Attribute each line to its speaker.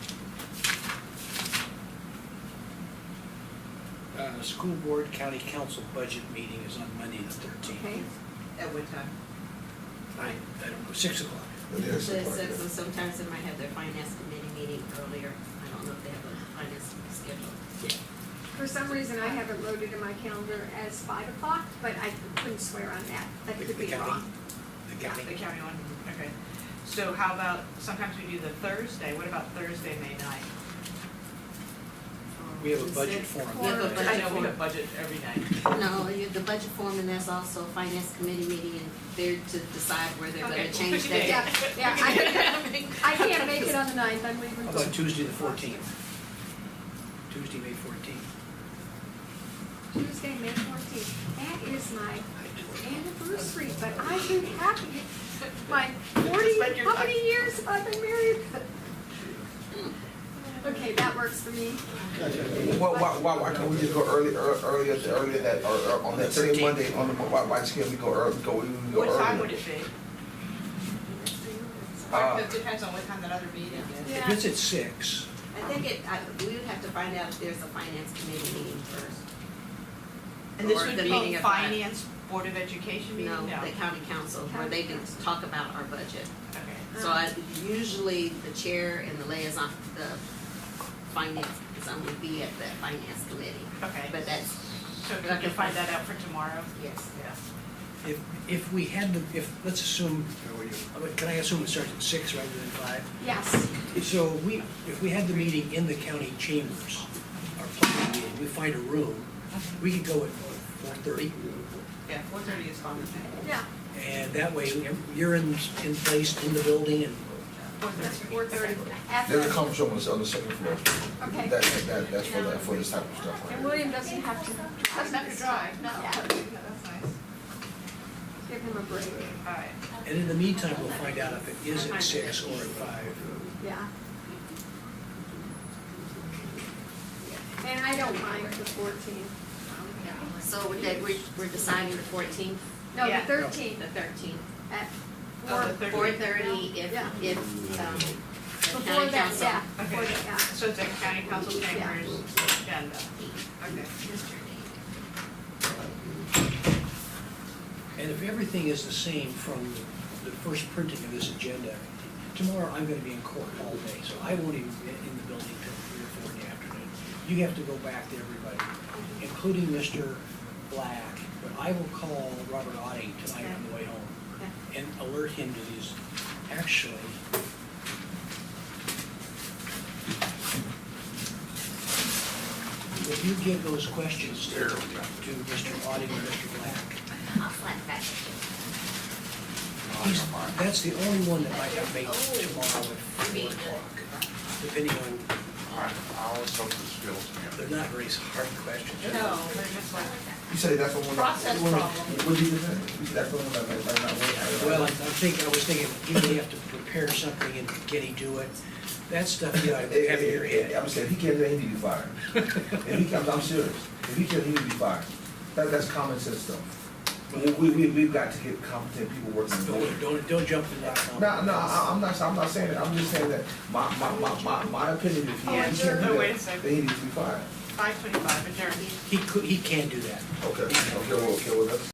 Speaker 1: the Uh, school board county council budget meeting is on Monday the
Speaker 2: Okay,
Speaker 1: thirteenth.
Speaker 2: at what time?
Speaker 1: I, I don't know, six o'clock.
Speaker 3: It is
Speaker 2: Usually
Speaker 3: like
Speaker 2: six,
Speaker 3: that.
Speaker 2: and sometimes they might have their finance committee meeting earlier. I don't know if they have a finance schedule.
Speaker 4: For some reason, I have it loaded in my calendar as five o'clock, but I couldn't swear on that. That
Speaker 1: The-
Speaker 4: could
Speaker 1: the
Speaker 4: be
Speaker 1: county-
Speaker 4: wrong.
Speaker 1: The
Speaker 5: Yeah, the
Speaker 1: county,
Speaker 5: county one, okay. So how about, sometimes we do the Thursday, what about Thursday, May ninth?
Speaker 1: we have a budget
Speaker 2: Is it-
Speaker 1: forum.
Speaker 2: We have a
Speaker 1: that
Speaker 5: I
Speaker 1: night.
Speaker 2: budget.
Speaker 5: know we have budget every night.
Speaker 2: No, you have the budget form, and that's also a finance committee meeting, and they're to decide where they're
Speaker 5: Okay,
Speaker 2: gonna
Speaker 5: we'll
Speaker 2: change
Speaker 5: pick a
Speaker 2: that.
Speaker 5: date.
Speaker 4: Yeah, yeah, I I can't make it on the ninth, I'm leaving.
Speaker 1: How about Tuesday the fourteenth? Tuesday, May fourteenth.
Speaker 4: Tuesday, May fourteenth. That is my anniversary, but I've been happy. My
Speaker 5: Just
Speaker 4: forty,
Speaker 5: like your
Speaker 4: how many years have I been married? Okay, that works for me.
Speaker 3: Well, why, why, why can't we just go early, ear- earlier, to- earlier that, or, or on that same
Speaker 1: 13th.
Speaker 3: Monday, on the, why, why just can't we go early, go, we can go
Speaker 5: What time would
Speaker 3: earlier?
Speaker 5: it be?
Speaker 3: Uh,
Speaker 5: It depends on what time that other meeting is.
Speaker 1: If it's at six,
Speaker 2: I think it, I, we would have to find out if there's a finance committee meeting first.
Speaker 5: And this
Speaker 2: Or
Speaker 5: would
Speaker 2: the
Speaker 5: be
Speaker 2: meeting of that.
Speaker 5: finance, Board of Education meeting?
Speaker 2: No, the county council, where they can talk about our budget.
Speaker 5: Okay.
Speaker 2: So I, usually the chair and the liaison, the finance, some would be at that finance committee.
Speaker 5: Okay,
Speaker 2: But that's,
Speaker 5: so can you find that out for tomorrow?
Speaker 2: yes,
Speaker 5: Yeah.
Speaker 1: if, if we had the, if, let's assume, can I assume it starts at six rather than five?
Speaker 4: Yes,
Speaker 1: So we, if we had the meeting in the county chambers, our planning meeting, we find a room, we could go at four thirty,
Speaker 5: Yeah, four thirty is fine with me.
Speaker 4: yeah,
Speaker 1: and that way you're in, in place in the building and
Speaker 5: Four
Speaker 4: that's
Speaker 5: thirty.
Speaker 4: four thirty.
Speaker 3: There's a conference room on the, on the second floor, that,
Speaker 4: Okay,
Speaker 3: that, that- that's for that, for this type of stuff. right
Speaker 4: and
Speaker 3: there.
Speaker 4: William doesn't have to.
Speaker 5: That's not your drive, no.
Speaker 4: Yeah.
Speaker 5: That's nice.
Speaker 4: Give him a break,
Speaker 5: All right.
Speaker 1: And in the meantime, we'll find out if it is at six or at five.
Speaker 4: yeah. And I don't mind the fourteenth.
Speaker 2: So would that, we're, we're deciding the fourteenth,
Speaker 4: No, the
Speaker 5: Yeah.
Speaker 2: the
Speaker 4: thirteenth
Speaker 2: thirteenth,
Speaker 4: at
Speaker 5: Oh, the
Speaker 4: four,
Speaker 5: thirty.
Speaker 2: four thirty, if,
Speaker 4: Yeah.
Speaker 2: if, um, the
Speaker 4: before
Speaker 2: county
Speaker 4: that,
Speaker 2: council.
Speaker 4: yeah, before
Speaker 5: Okay,
Speaker 4: that, yeah.
Speaker 5: so it's at county council chambers agenda. Okay.
Speaker 1: And if everything is the same from the first printing of this agenda, tomorrow I'm gonna be in court all day, so I won't even be in the building till three or four in the afternoon. You have to go back to everybody, including Mr. Black, but I will call Robert Oddie tonight on the way home and alert him to these, actually. If you give those questions to to Mr. Oddie and Mr. Black,
Speaker 2: I'll flat back.
Speaker 1: He's- That's the only one that I can make tomorrow at four o'clock, depending on,
Speaker 6: I, I always hope this feels me.
Speaker 1: they're not very hard questions.
Speaker 5: No, they're just like,
Speaker 3: You say that's the one. that-
Speaker 5: Process
Speaker 3: you wanna-
Speaker 5: problem.
Speaker 3: What do you think? That's the one that, that, that, that.
Speaker 1: Well, I I think, I was thinking, you may have to prepare something and can he do it? That stuff you ought to have in your head.
Speaker 3: I'm saying, if he can't, do it, he need to be fired. If he comes, I'm serious, if he can't, he need to be fired. That, that's common sense stuff. We, we, we- we've got to get competent people working. in the building.
Speaker 1: Don't, don't, don't jump in that. tunnel.
Speaker 3: No, no, I, I'm not, I'm not saying that, I'm just saying that my, my, my, my, my opinion, if he
Speaker 5: Oh,
Speaker 3: can't do
Speaker 5: sure. Oh, wait a
Speaker 3: that,
Speaker 5: second.
Speaker 3: then he needs to be fired.
Speaker 5: five twenty-five adjourned.
Speaker 1: He could, he can do that.
Speaker 3: Okay, okay, well, okay, well, that's.